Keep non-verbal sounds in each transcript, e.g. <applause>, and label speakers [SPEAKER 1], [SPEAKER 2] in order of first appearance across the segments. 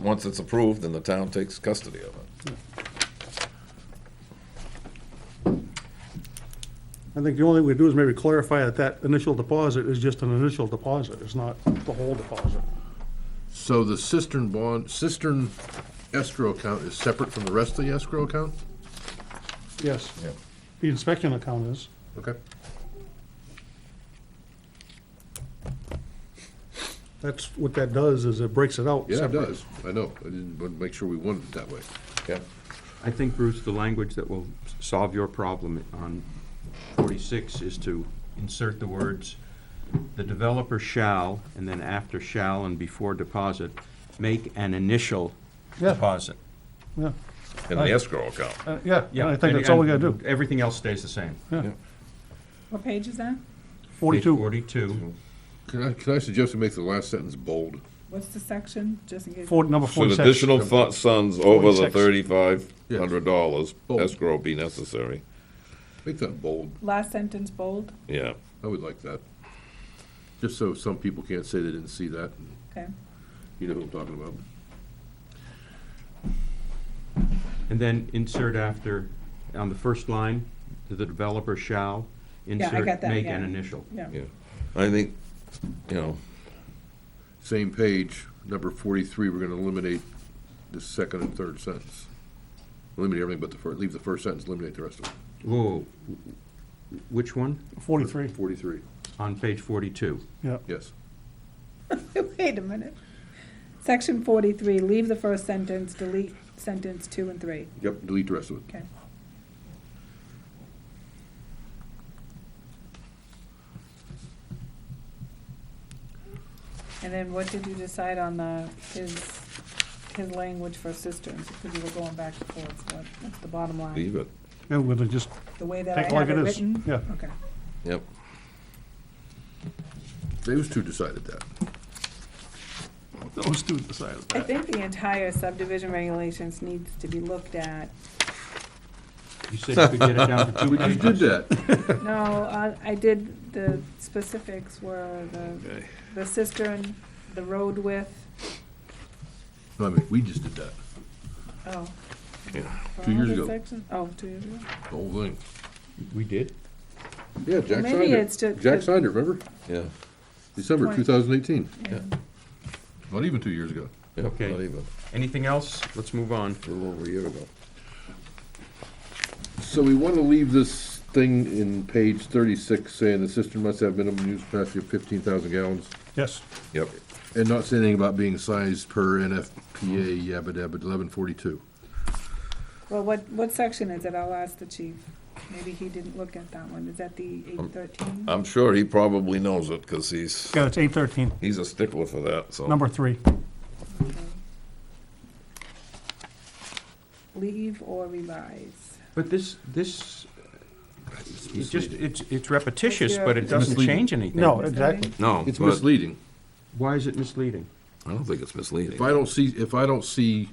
[SPEAKER 1] Once it's approved, then the town takes custody of it.
[SPEAKER 2] I think the only thing we do is maybe clarify that that initial deposit is just an initial deposit, it's not the whole deposit.
[SPEAKER 3] So the cistern bond, cistern escrow account is separate from the rest of the escrow account?
[SPEAKER 2] Yes,
[SPEAKER 1] Yeah.
[SPEAKER 2] the inspection account is.
[SPEAKER 3] Okay.
[SPEAKER 2] That's what that does, is it breaks it out.
[SPEAKER 3] Yeah, it
[SPEAKER 2] separate.
[SPEAKER 3] does. I know. I didn't, but make sure we wanted it that way.
[SPEAKER 1] Yeah.
[SPEAKER 4] I think, Bruce, the language that will solve your problem on 46 is to insert the words, "The developer shall," and then after shall and before deposit, make an initial
[SPEAKER 2] Yeah.
[SPEAKER 4] deposit.
[SPEAKER 2] Yeah,
[SPEAKER 1] In the escrow account.
[SPEAKER 2] Uh, yeah, and I think that's all we gotta do.
[SPEAKER 4] Everything else stays the same.
[SPEAKER 5] What page is that?
[SPEAKER 4] Page
[SPEAKER 2] 42,
[SPEAKER 4] 42,
[SPEAKER 3] Can I, can I suggest we make the last sentence bold?
[SPEAKER 5] What's the section, just in case?
[SPEAKER 2] four- number
[SPEAKER 1] Should
[SPEAKER 2] 46.
[SPEAKER 1] additional fu- funds over the
[SPEAKER 2] Forty-six.
[SPEAKER 1] thirty-five hundred dollars
[SPEAKER 3] Bold.
[SPEAKER 1] escrow be necessary?
[SPEAKER 3] Make that bold.
[SPEAKER 5] Last sentence bold,
[SPEAKER 1] Yeah.
[SPEAKER 3] I would like that. Just so some people can't say they didn't see that.
[SPEAKER 5] okay.
[SPEAKER 3] You know who I'm talking about.
[SPEAKER 4] and then insert after, on the first line, "The developer shall,"
[SPEAKER 5] I got
[SPEAKER 4] insert,
[SPEAKER 5] that,
[SPEAKER 4] make an
[SPEAKER 5] yeah.
[SPEAKER 4] initial.
[SPEAKER 5] Yeah,
[SPEAKER 1] Yeah. I think, you know,
[SPEAKER 3] Same page, number forty-three, we're gonna eliminate the second and third sentence. Eliminate everything but the first, leave the first sentence, eliminate the rest of it.
[SPEAKER 4] Whoa, which one?
[SPEAKER 2] 43,
[SPEAKER 3] Forty-three,
[SPEAKER 4] On page 42.
[SPEAKER 2] yeah.
[SPEAKER 3] yes.
[SPEAKER 5] <laughs> wait a minute. Section forty-three, leave the first sentence, delete sentence two and three,
[SPEAKER 3] Yep. Delete the rest of it.
[SPEAKER 5] okay. And then what did you decide on the, his, his language for cisterns, because you were going back and forth, what, what's the bottom line?
[SPEAKER 1] leave it.
[SPEAKER 2] Yeah, we're gonna just
[SPEAKER 5] The way that I
[SPEAKER 2] take it like
[SPEAKER 5] have it
[SPEAKER 2] it is.
[SPEAKER 5] written?
[SPEAKER 2] Yeah,
[SPEAKER 5] Okay,
[SPEAKER 1] Yep.
[SPEAKER 3] Those two decided that.
[SPEAKER 2] those two decided
[SPEAKER 5] I
[SPEAKER 2] that.
[SPEAKER 5] think the entire subdivision regulations needs to be
[SPEAKER 3] <laughs>
[SPEAKER 5] looked at.
[SPEAKER 4] You
[SPEAKER 2] <laughs>
[SPEAKER 4] said you could get it down to two
[SPEAKER 3] We just
[SPEAKER 4] pages.
[SPEAKER 3] did that.
[SPEAKER 5] No, uh, I did, the specifics were the, the cistern, the road width,
[SPEAKER 3] No, I mean, we just did that,
[SPEAKER 5] oh.
[SPEAKER 1] Yeah.
[SPEAKER 5] for
[SPEAKER 3] Two
[SPEAKER 5] all
[SPEAKER 3] years
[SPEAKER 5] the
[SPEAKER 3] ago.
[SPEAKER 5] sections? Oh, two years ago.
[SPEAKER 3] the whole thing.
[SPEAKER 4] We did?
[SPEAKER 3] Yeah, Jack
[SPEAKER 5] Maybe
[SPEAKER 3] signed
[SPEAKER 5] it's ju-
[SPEAKER 3] it. Jack signed it, remember?
[SPEAKER 1] Yeah.
[SPEAKER 3] December
[SPEAKER 5] Twenty.
[SPEAKER 3] two thousand eighteen.
[SPEAKER 1] Yeah.
[SPEAKER 3] Not even two years ago.
[SPEAKER 1] Yeah,
[SPEAKER 4] Okay.
[SPEAKER 1] Not even,
[SPEAKER 4] Anything else? Let's move on.
[SPEAKER 1] a little over a year ago.
[SPEAKER 3] So we want to leave this thing in page thirty-six, saying the cistern must have minimum use capacity of fifteen thousand gallons,
[SPEAKER 2] Yes,
[SPEAKER 1] Yep.
[SPEAKER 3] and not say anything about being sized per NFPA yabba dabba eleven forty-two.
[SPEAKER 5] Well, what, what section is it? I'll ask the chief. Maybe he didn't look at that one. Is that the eight thirteen?
[SPEAKER 1] I'm sure he probably knows it, cause he's,
[SPEAKER 2] yeah, it's 813,
[SPEAKER 1] he's a stickler for that, so.
[SPEAKER 2] number three.
[SPEAKER 5] Leave or revise?
[SPEAKER 4] But this, this, it just, it's, it's repetitious, but it
[SPEAKER 3] It's
[SPEAKER 4] doesn't
[SPEAKER 3] misleading.
[SPEAKER 4] change anything.
[SPEAKER 2] No, exactly.
[SPEAKER 1] No,
[SPEAKER 3] It's
[SPEAKER 1] but
[SPEAKER 3] misleading.
[SPEAKER 4] Why is it misleading?
[SPEAKER 1] I don't think it's misleading.
[SPEAKER 3] If I don't see, if I don't see,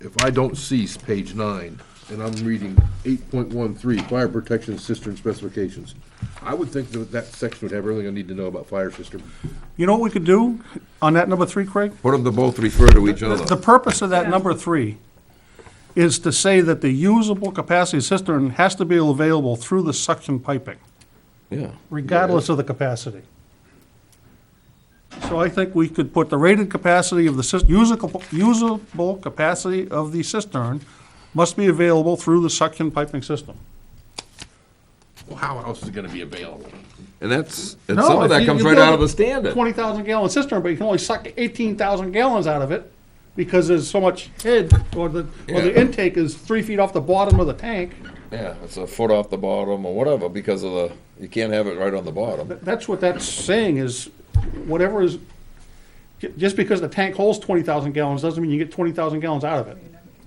[SPEAKER 3] if I don't see page nine, and I'm reading eight point one three, fire protection cistern specifications, I would think that that section would have everything I need to know about fire cistern.
[SPEAKER 2] You know what we could do on that number three, Craig?
[SPEAKER 1] What if they both refer to each
[SPEAKER 2] The
[SPEAKER 1] other?
[SPEAKER 2] purpose of that
[SPEAKER 5] Yeah.
[SPEAKER 2] number three is to say that the usable capacity cistern has to be available through the suction piping,
[SPEAKER 1] Yeah.
[SPEAKER 2] regardless of the capacity. So I think we could put the rated capacity of the cis- usable, usable capacity of the cistern must be available through the suction piping system.
[SPEAKER 3] Well, how else is it gonna be available?
[SPEAKER 1] And that's, and
[SPEAKER 2] No,
[SPEAKER 1] some of
[SPEAKER 2] if
[SPEAKER 1] that
[SPEAKER 2] you-
[SPEAKER 1] comes
[SPEAKER 2] you
[SPEAKER 1] right
[SPEAKER 2] build
[SPEAKER 1] out of
[SPEAKER 2] a
[SPEAKER 1] the standard.
[SPEAKER 2] Twenty thousand gallon cistern, but you can only suck eighteen thousand gallons out of it because there's so much head, or the, or the
[SPEAKER 1] Yeah.
[SPEAKER 2] intake is three feet off the bottom of the tank.
[SPEAKER 1] Yeah, it's a foot off the bottom or whatever because of the, you can't have it right on the bottom.
[SPEAKER 2] Th- That's what that's saying is, whatever is, ju- just because the tank holds twenty thousand gallons doesn't mean you get twenty thousand gallons out of it.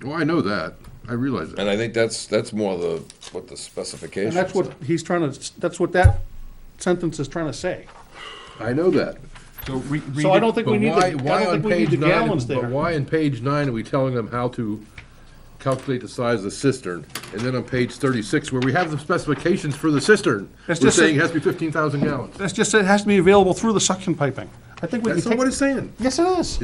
[SPEAKER 3] Oh, I know that. I realize that.
[SPEAKER 1] And I think that's, that's more the, what the specifications.
[SPEAKER 2] And that's what he's trying to, s- that's what that sentence is trying to say.
[SPEAKER 3] I know that.
[SPEAKER 4] So re- read
[SPEAKER 2] So I
[SPEAKER 4] it-
[SPEAKER 2] don't think we
[SPEAKER 3] But
[SPEAKER 2] need the, I
[SPEAKER 3] why, why
[SPEAKER 2] don't
[SPEAKER 3] on
[SPEAKER 2] think we need the
[SPEAKER 3] page nine,
[SPEAKER 2] gallons
[SPEAKER 3] but
[SPEAKER 2] there.
[SPEAKER 3] why in page nine are we telling them how to calculate the size of the cistern? And then on page thirty-six, where we have the specifications for the cistern, we're
[SPEAKER 2] That's just a-
[SPEAKER 3] saying it has to be fifteen thousand gallons.
[SPEAKER 2] That's just, it has to be available through the suction piping. I think we can
[SPEAKER 3] That's
[SPEAKER 2] take.
[SPEAKER 3] not what it's saying.
[SPEAKER 2] Yes, it is.